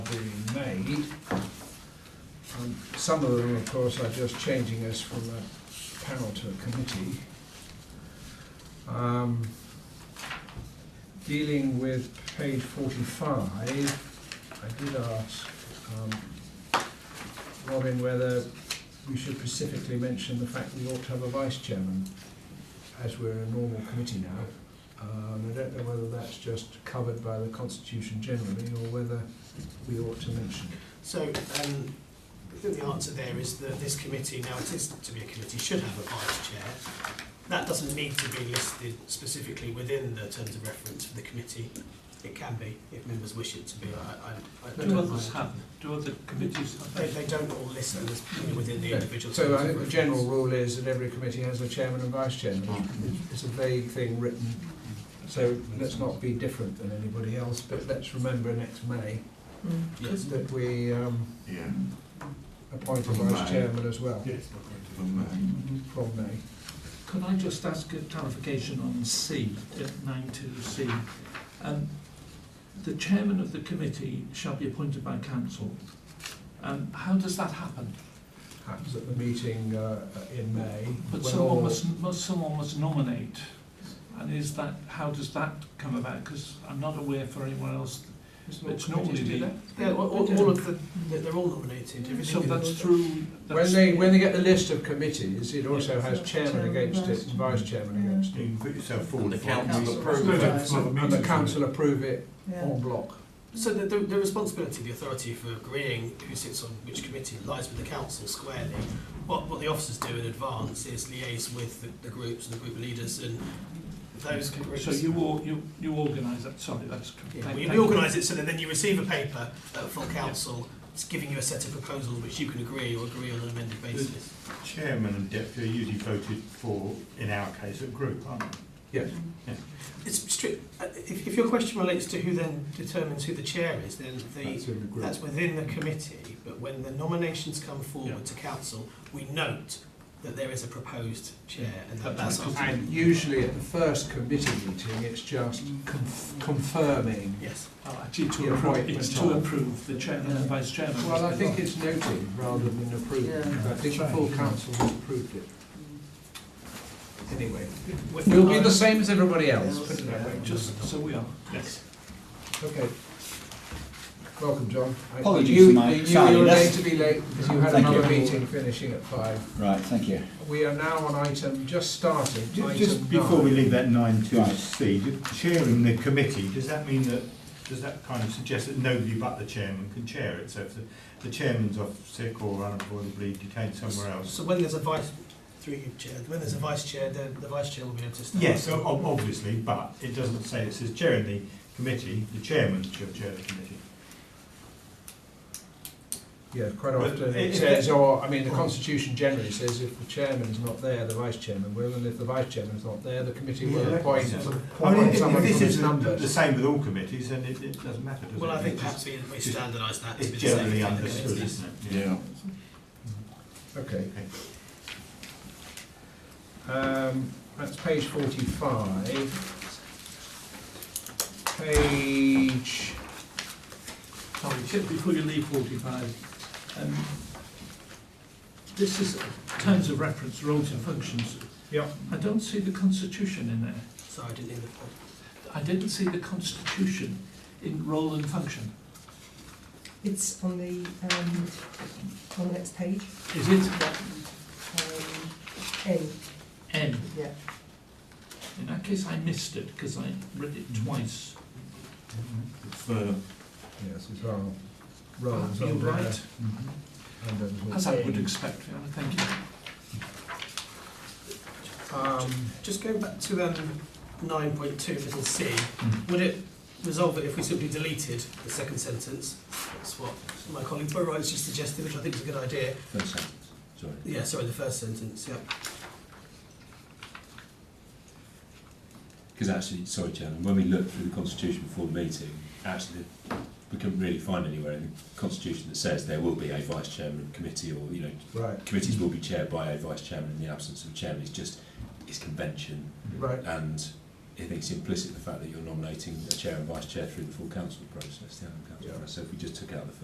made. Um, Some of them, of course, are just changing us from a panel to a committee. Um, Dealing with page forty-five, I did ask um, Robin whether we should specifically mention the fact we ought to have a vice chairman, as we're a normal committee now. Um, I don't know whether that's just covered by the constitution generally, or whether we ought to mention it. So, um, I think the answer there is that this committee, now it is to be a committee, should have a vice chair. That doesn't need to be listed specifically within the terms of reference for the committee. It can be, if members wish it to be, I, I, I Do don't others mind. have, do other committees have? They, they don't all list them as you know, within the individual. So I terms of think the reference. general rule is that every committee has a chairman and vice chairman. It's a vague thing written, so let's not be different than anybody else, but let's remember next May Yes. that we um, Yeah, appoint a From vice May. chairman as well from that. from May. Could I just ask a clarification on C, nine two C? Um, the chairman of the committee shall be appointed by council. Um, how does that happen? Happens at the meeting uh, in May. But when someone all- must, must, someone must nominate. And is that, how does that come about? Because I'm not aware for anyone else, it's normally the, Yeah, all, all all of the, they're- they're all nominated, so everything. that's through, When that's, they, when they get the list of committees, it also Yeah. has chairman against it and vice chairman against it. You can put yourself forward. The for it. council approves And the council approve it Yeah. en bloc. So the, the, the responsibility, the authority for agreeing who sits on which committee lies with the council squarely. What, what the officers do in advance is liaise with the, the groups and the group leaders and those groups. so you all, you, you organise that, sorry, that's. Yeah, thank- well, you thank you. organise it so that then you receive a paper at full council, it's giving you a set of proposals which you can agree or agree on an amended basis. Chairman and deputy are usually voted for, in our case, a group, aren't they? Yes. It's strict, uh, if, if your question relates to who then determines who the chair is, then the, That's in the group. That's within the committee, but when the nominations come Yeah. forward to council, we note that there is a proposed chair, and that- But that's that's our... And usually at the first committee meeting, it's just conf- confirming. Yes. Well, actually, to Yeah, approve, right, it's but to not. approve the chairman and vice chairman. Well, I isn't it? think it's noted rather than approved. I think the full council has approved it. Anyway, With we'll be regard- the same as everybody else, put it that way. Just so we are. Yes. Okay. Welcome, John. I- Apologies, you- Mike. You Sorry, you were that's- going to be late because you had Thank another you. meeting finishing at five. Right, thank you. We are now on item, just started, item Ju- nine. Just before we leave that nine to us, Steve, chairing the committee, does that mean that, does that kind of suggest that nobody but the chairman can chair it? So if the, the chairman's off sick or unavoidably detained somewhere else? So when there's a vice, through you, Chair, when there's a vice chair, the, the vice chair will be able to stand. Yes, o- ob- obviously, but it doesn't say, it says chairing the committee, the chairman shall chair the committee. Yeah, quite But often i- it if says, that- or, I mean, the constitution generally says if the chairman's not there, the vice chairman will, and if the vice chairman's not there, the committee will Yeah. appoint Yeah. I mean, appoint if- if someone this from its is the- the numbers. same with all committees, then it, it doesn't matter, does it? Well, I think It's perhaps just- we, we just- standardise that to be It's the same. generally thing. understood, isn't it? Okay. Um, that's page forty-five. Page Sorry, just before you leave forty-five, um, this is terms of reference, roles and functions. Yeah. I don't see the constitution in there. Sorry, I didn't hear the point. I didn't see the constitution in role and function. It's on the, um, on the next page, Is it um, N, N? yeah. In that case, I missed it because I read it twice. For Yes, it's our roles You're under, right, Mm-hmm. under the- as I would expect, Fiona, thank you. Um, Just going back to um, nine point two, little c, would it resolve it if we simply deleted the second sentence? That's what my colleague Burrow has just suggested, which I think is a good idea. First sentence, sorry. Yeah, sorry, the first sentence, yeah. Because actually, sorry, Chairman, when we looked through the Constitution before the meeting, actually, we couldn't really find anywhere in the Constitution that says there will be a vice chairman of committee or, you know, right, committees will be chaired by a vice chairman in the absence of a chairman. It's just, it's convention. right, And I think it's implicit the fact that you're nominating a chair and vice chair through the full council process, the annual council Yeah. process. So if we just took out the